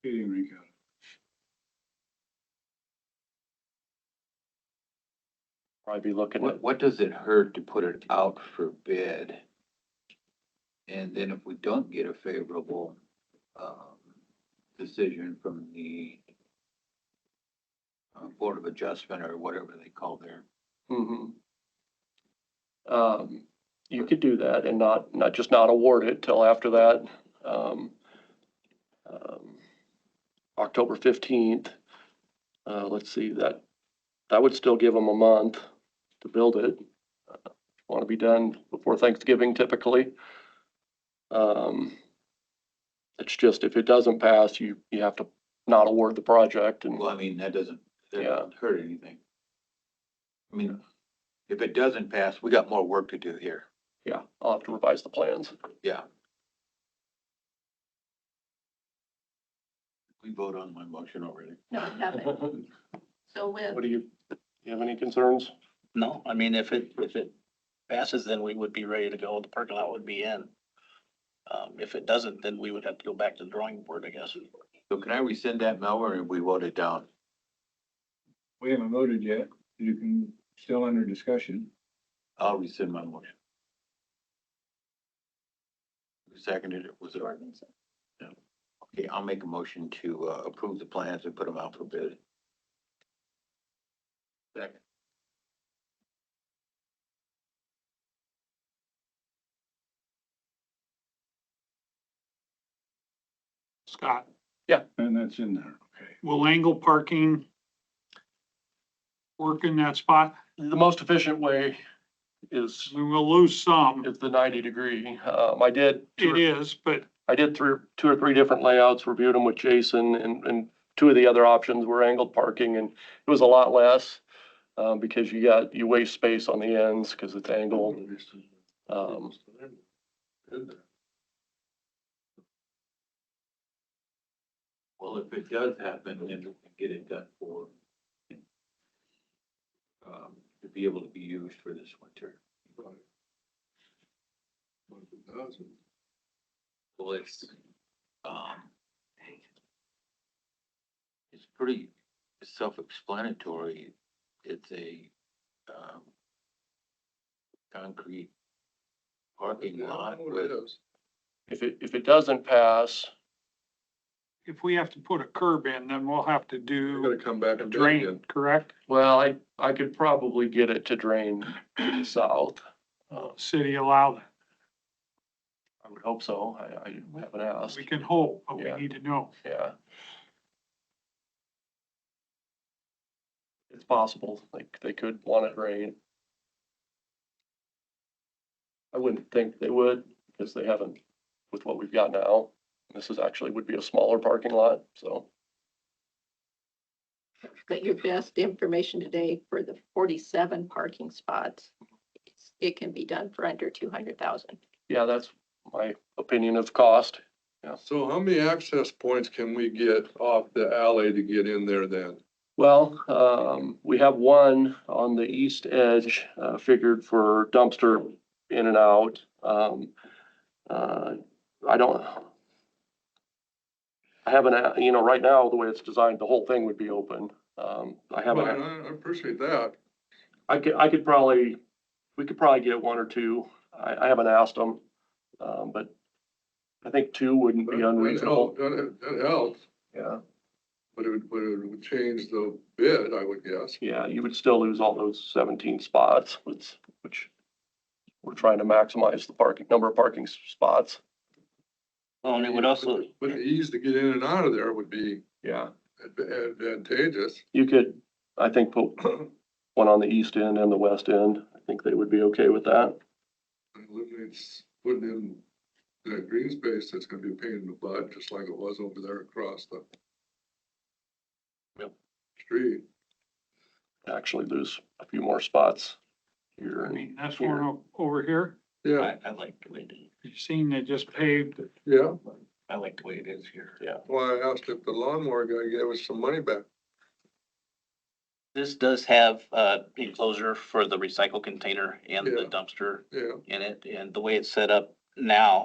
skating rink out. Probably be looking at, What, what does it hurt to put it out for bid? And then if we don't get a favorable, um, decision from the uh, Board of Adjustment or whatever they call their, Mhm. Um, you could do that and not, not, just not award it till after that. Um, um, October fifteenth, uh, let's see, that, that would still give them a month to build it. Want to be done before Thanksgiving typically. Um, it's just if it doesn't pass, you, you have to not award the project and. well, I mean, that doesn't, that Yeah. doesn't hurt anything. I mean, if it doesn't pass, we got more work to do here. Yeah, I'll have to revise the plans. We vote on my motion already. No, we haven't. What So with, do you, you have any concerns? No, I mean, if it, if it passes, then we would be ready to go. The parking lot would be in. Um, if it doesn't, then we would have to go back to the drawing board, I guess. So can I rescind that, Mel, or we vote it down? We haven't voted yet. You can, still under discussion. I'll rescind my motion. Who Seconded it, was it? Okay, I'll make a motion to uh, approve the plans and put them out for bid. Second. Scott, And that's in there, okay. will angle parking work in that spot? The most efficient way is, We will lose some. is the ninety degree. Um, I did, It is, but I did through two or three different layouts, reviewed them with Jason and, and two of the other options were angled parking and it was a lot less. Um, because you got, you waste space on the ends because it's angled. Um, Well, if it does happen, then we can get it done for um, to be able to be used for this winter. Well, it's, um, it's pretty self-explanatory. It's a, um, concrete parking lot with, if it, if it doesn't pass, if we have to put a curb in, then we'll have to do come back a drain, correct? well, I, I could probably get it to drain to the south. Uh, City allow that. I would hope so. I, I haven't asked. We can hope, but we Yeah. need to know. Yeah. It's possible, like, they could want it rain. I wouldn't think they would, because they haven't, with what we've got now, this is actually would be a smaller parking lot, so. but your best information today for the forty-seven parking spots, it's- it can be done for under two hundred thousand. Yeah, that's my opinion of cost. So how many access points can we get off the alley to get in there then? Well, um, we have one on the east edge, uh, figured for dumpster in and out. Um, uh, I don't. I haven't, uh, you know, right now, the way it's designed, the whole thing would be open. Um, I Fine, haven't, I, I appreciate that. I could, I could probably, we could probably get one or two. I, I haven't asked them. Um, but I think two wouldn't but be that unreasonable. help- That, that helps, Yeah, but it would, but it would change the bid, I would guess. yeah, you would still lose all those seventeen spots, which, which we're trying to maximize the parking, number of parking s- spots. Well, Oh, and it would also, But the ease to get in and out of there would be Yeah. adva- advantageous. You could, I think, put one on the east end and the west end. I think they would be okay with that. Eliminates putting in that green space that's gonna be a pain in the butt, just like it was over there across the Yep. street. Actually lose a few more spots here. I mean, and that's here. one o- over here. Yeah, I, I like the way it is. You've seen they just paved it. yeah. I like the way it is here. Why I asked if the lawnmower guy gave us some money back. This does have, uh, enclosure for the recycle container and the Yeah. dumpster Yeah. in it, and the way it's set up now,